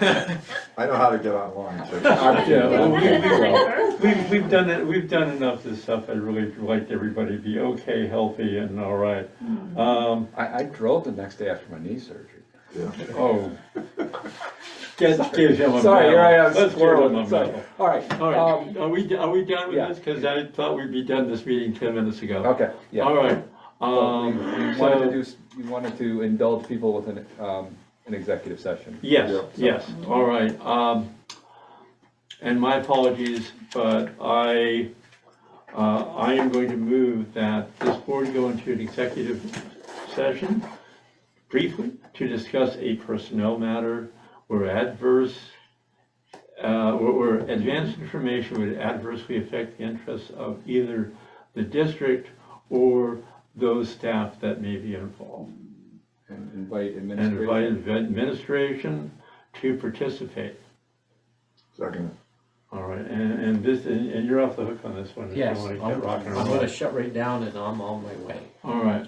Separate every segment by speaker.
Speaker 1: I know how to get online too.
Speaker 2: Yeah, well, we- we-
Speaker 3: Well,
Speaker 2: We've, we've done it, we've done enough of this stuff, I'd really like everybody to be okay, healthy and all right. Um,
Speaker 4: I, I drove the next day after my knee surgery.
Speaker 2: oh. Get, give him a medal.
Speaker 4: Sorry, here I am.
Speaker 2: Let's give him a
Speaker 4: Sorry.
Speaker 2: medal.
Speaker 4: All right,
Speaker 2: All
Speaker 4: um,
Speaker 2: right, are we, are we done with
Speaker 4: yeah.
Speaker 2: this? Cause I thought we'd be done this meeting ten minutes ago.
Speaker 4: okay, yeah.
Speaker 2: All right,
Speaker 4: Well, we-
Speaker 2: um,
Speaker 4: we wanted to
Speaker 2: so,
Speaker 4: do, s- we wanted to indulge people with an, um, an executive session.
Speaker 1: Yeah,
Speaker 2: yes,
Speaker 1: so-
Speaker 2: yes, all right, um, and my apologies, but I, uh, I am going to move that this board go into an executive session briefly to discuss a personnel matter where adverse, uh, where- where advanced information would adversely affect the interests of either the district or those staff that may be involved
Speaker 4: And invite
Speaker 2: and invite
Speaker 4: administration.
Speaker 2: administration to participate.
Speaker 1: Second,
Speaker 2: All right, and, and this, and and you're off the hook on this one. if you
Speaker 5: Yes,
Speaker 2: wanna
Speaker 5: I'm
Speaker 2: get rocking and
Speaker 5: I'm
Speaker 2: rolling.
Speaker 5: gonna shut right down and I'm on my way.
Speaker 2: All right,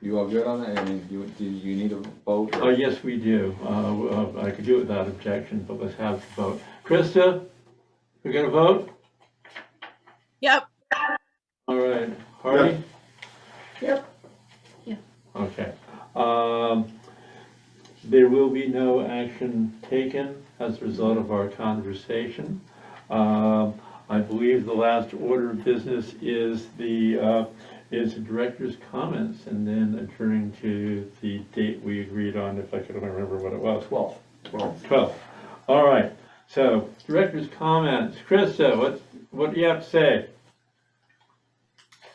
Speaker 4: You all good on that? I mean, you, do you need a vote?
Speaker 2: oh, yes, we do. Uh, uh, I could do it without objection, but let's have the vote. Krista, we gonna vote?
Speaker 6: Yep.
Speaker 2: All right, Hardy?
Speaker 3: Yep. Yeah.
Speaker 2: Okay, um, there will be no action taken as a result of our conversation. Um, I believe the last order of business is the, uh, is the director's comments and then adjourning to the date we agreed on, if I could remember what it was.
Speaker 4: Twelve.
Speaker 1: twelve.
Speaker 2: 12. All right, so director's comments. Krista, what, what do you have to say?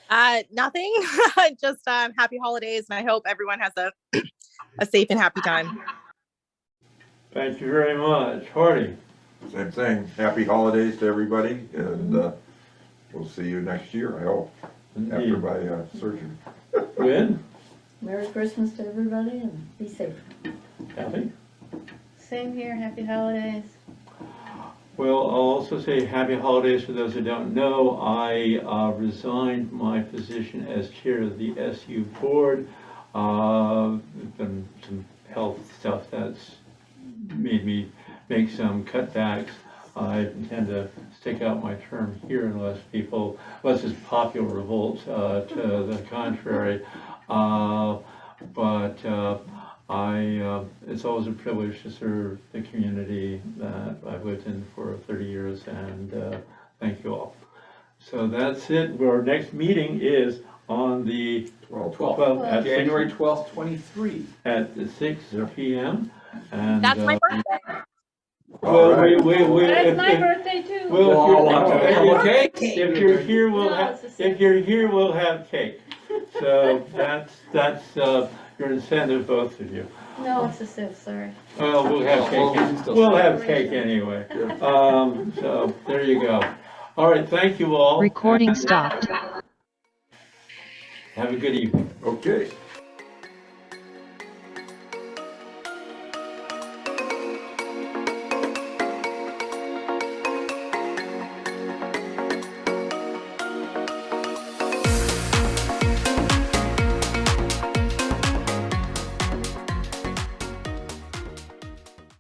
Speaker 6: Uh, nothing. Just um, happy holidays, and I hope everyone has a a safe and happy time.
Speaker 2: Thank you very much. Hardy?
Speaker 1: Same thing, happy holidays to everybody, and uh, we'll see you next year, I hope, after
Speaker 2: Indeed.
Speaker 1: my uh, surgery.
Speaker 2: Gwen?
Speaker 3: Merry Christmas to everybody and be safe.
Speaker 2: Kathy?
Speaker 7: Same here, happy holidays.
Speaker 2: Well, I'll also say happy holidays for those who don't know. I uh, resigned my position as chair of the SU board. Uh, there's Been some health stuff that's made me make some cutbacks. I intend to stick out my term here unless people, unless it's popular revolt uh, to the contrary. Uh, But uh, I, uh, it's always a privilege to serve the community that I've lived in for 30 years, and uh, thank you all. So that's it. Our next meeting is on the
Speaker 1: Twelve.
Speaker 2: 12th at
Speaker 4: January
Speaker 2: six-
Speaker 4: twelfth, twenty-three.
Speaker 2: at the 6
Speaker 1: Yeah.
Speaker 2: PM. And,
Speaker 6: That's my
Speaker 2: uh,
Speaker 6: birthday.
Speaker 2: Well, wait, wait, wait.
Speaker 7: That's
Speaker 2: if-
Speaker 7: my
Speaker 2: if-
Speaker 7: birthday too.
Speaker 2: Well, if you're- if you're-
Speaker 4: okay.
Speaker 2: If you're here, we'll
Speaker 7: No,
Speaker 2: have,
Speaker 7: it's the same.
Speaker 2: if you're here, we'll have cake. So that's, that's uh, your incentive, both of you.
Speaker 7: No, it's the sixth, sorry.
Speaker 2: Well, we'll have
Speaker 4: Well, we
Speaker 2: cake,
Speaker 4: can still-
Speaker 2: we'll have cake anyway. Um, so, there you go. All right, thank you all.
Speaker 8: Recording
Speaker 2: and
Speaker 8: stopped.
Speaker 2: Have a good evening.
Speaker 1: Okay.